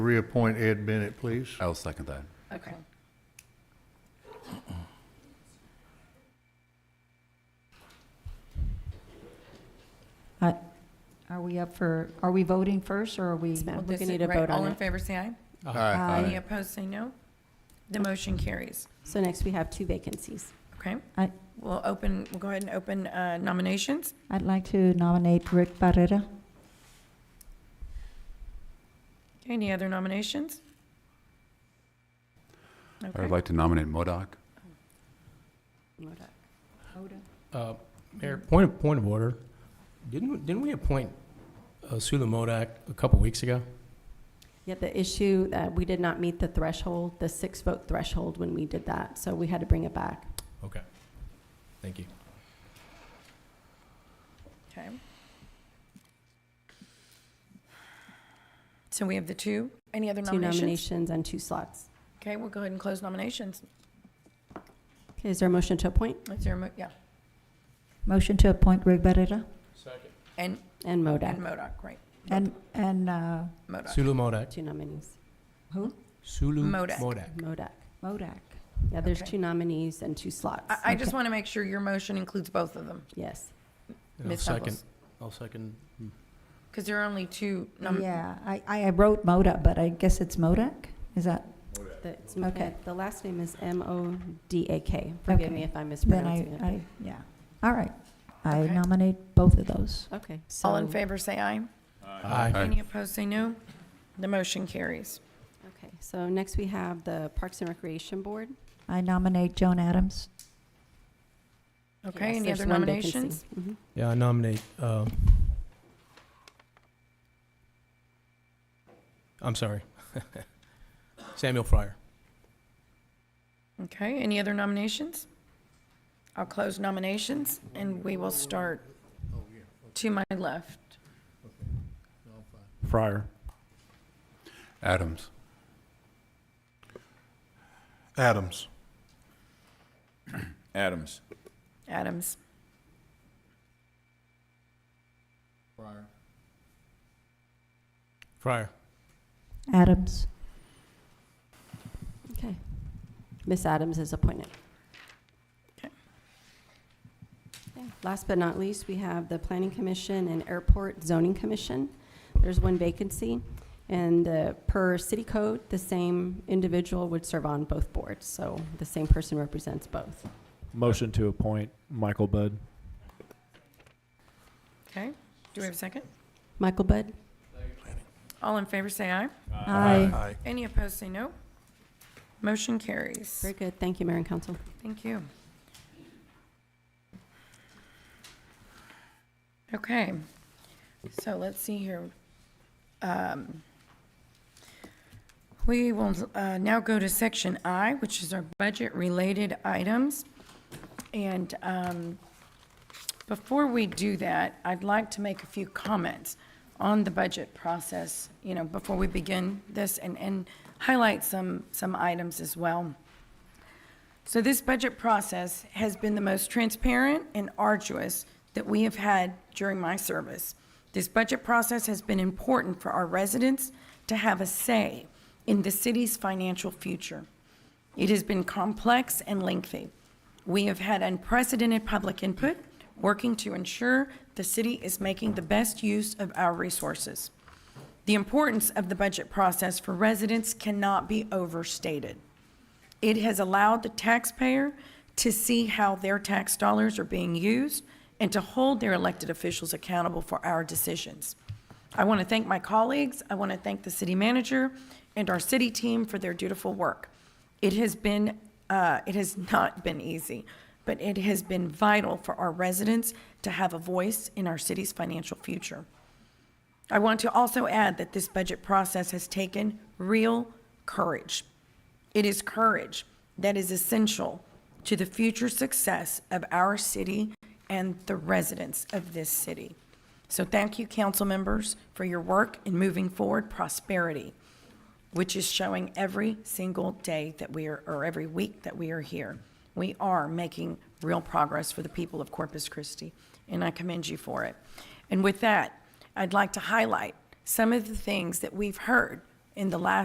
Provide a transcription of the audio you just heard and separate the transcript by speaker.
Speaker 1: Reappoint Ed Bennett, please.
Speaker 2: I'll second that.
Speaker 3: Okay.
Speaker 4: I- Are we up for, are we voting first, or are we?
Speaker 5: ma'am. We're
Speaker 3: This
Speaker 5: going
Speaker 3: is
Speaker 5: to need a
Speaker 3: right.
Speaker 5: vote
Speaker 3: All
Speaker 5: on
Speaker 3: in
Speaker 5: it.
Speaker 3: favor, say aye.
Speaker 1: Aye.
Speaker 3: Any opposed, say no. The motion carries.
Speaker 5: So next, we have two vacancies.
Speaker 3: Okay?
Speaker 4: I-
Speaker 3: We'll open, we'll go ahead and open uh, nominations.
Speaker 4: I'd like to nominate Rick Barrera.
Speaker 3: Okay, Any other nominations?
Speaker 2: I
Speaker 3: Okay.
Speaker 2: would like to nominate Modoc.
Speaker 6: Uh, Mayor, point of, point of order. Didn't, we- didn't we appoint uh, Sula Modak a couple weeks ago?
Speaker 5: Yeah, the issue, uh, we did not meet the threshold, the six-vote threshold when we did that, so we had to bring it back.
Speaker 6: Okay. Thank you.
Speaker 3: Okay. So we have the two. Any other
Speaker 5: Two
Speaker 3: nominations?
Speaker 5: nominations and two slots.
Speaker 3: Okay, we'll go ahead and close nominations.
Speaker 5: Okay, is there a motion to appoint?
Speaker 3: Is there, a mo- yeah,
Speaker 4: Motion to appoint Rick Barrera
Speaker 6: Second.
Speaker 3: and, and
Speaker 5: And Modak,
Speaker 3: Modoc, right,
Speaker 4: and, and uh,
Speaker 3: Modoc.
Speaker 6: Sula Modak.
Speaker 5: two nominees.
Speaker 6: Sulu
Speaker 3: Modak.
Speaker 6: Modak.
Speaker 5: Modak.
Speaker 4: Modak.
Speaker 5: Yeah, there's
Speaker 3: Okay. Uh,
Speaker 5: two nominees and two slots.
Speaker 3: I, I just
Speaker 4: Okay.
Speaker 3: want to make sure your motion includes both of them,
Speaker 5: Yes.
Speaker 6: And I'll
Speaker 3: Ms.
Speaker 6: second-
Speaker 3: Douglas.
Speaker 6: I'll second.
Speaker 3: Because there are only two nom-
Speaker 4: Yeah, I, I wrote Modak, but I guess it's Modak? Is that,
Speaker 5: The- it's-
Speaker 4: Okay.
Speaker 5: The last name is M-O-D-A-K. Forgive
Speaker 4: Okay.
Speaker 5: me if I'm
Speaker 4: then I,
Speaker 5: mispronouncing it.
Speaker 4: I, yeah. All right. I
Speaker 3: Okay.
Speaker 4: nominate both of those.
Speaker 5: Okay.
Speaker 3: All in
Speaker 5: so-
Speaker 3: favor, say aye.
Speaker 6: Aye.
Speaker 2: Aye.
Speaker 3: Any opposed, say no. The motion carries.
Speaker 5: Okay, so next we have the Parks and Recreation Board.
Speaker 4: I nominate Joan Adams.
Speaker 3: Okay,
Speaker 5: Yes,
Speaker 3: any
Speaker 5: there's
Speaker 3: other
Speaker 5: one vacancy.
Speaker 3: nominations?
Speaker 5: Mhm.
Speaker 6: Yeah, I nominate, um, I'm sorry. Samuel Fryer.
Speaker 3: Okay, any other nominations? I'll close nominations, and we will start to my left.
Speaker 2: Fryer. Adams.
Speaker 7: Adams. Adams.
Speaker 3: Adams.
Speaker 6: Fryer.
Speaker 4: Adams.
Speaker 5: Okay. Ms. Adams is appointed.
Speaker 3: Okay.
Speaker 5: Okay. Last but not least, we have the Planning Commission and Airport Zoning Commission. There's one vacancy, and uh, per city code, the same individual would serve on both boards, so the same person represents both.
Speaker 8: Motion to appoint Michael Budd.
Speaker 3: Okay, do we have a second?
Speaker 5: Michael Budd?
Speaker 3: All in favor, say aye.
Speaker 4: Aye.
Speaker 7: Aye.
Speaker 3: Any opposed, say no. Motion carries.
Speaker 5: Very good. Thank you, Mayor and Council.
Speaker 3: Thank you. Okay, so let's see here. Um, We will uh, now go to section I, which is our budget-related items. And um, before we do that, I'd like to make a few comments on the budget process, you know, before we begin this and, and highlight some, some items as well. So this budget process has been the most transparent and arduous that we have had during my service. This budget process has been important for our residents to have a say in the city's financial future. It has been complex and lengthy. We have had unprecedented public input, working to ensure the city is making the best use of our resources. The importance of the budget process for residents cannot be overstated. It has allowed the taxpayer to see how their tax dollars are being used and to hold their elected officials accountable for our decisions. I want to thank my colleagues, I want to thank the city manager and our city team for their dutiful work. It has been, uh, it has not been easy, but it has been vital for our residents to have a voice in our city's financial future. I want to also add that this budget process has taken real courage. It is courage that is essential to the future success of our city and the residents of this city. So thank you, council members, for your work in moving forward prosperity, which is showing every single day that we are, or every week that we are here. We are making real progress for the people of Corpus Christi, and I commend you for it. And with that, I'd like to highlight some of the things that we've heard in in the last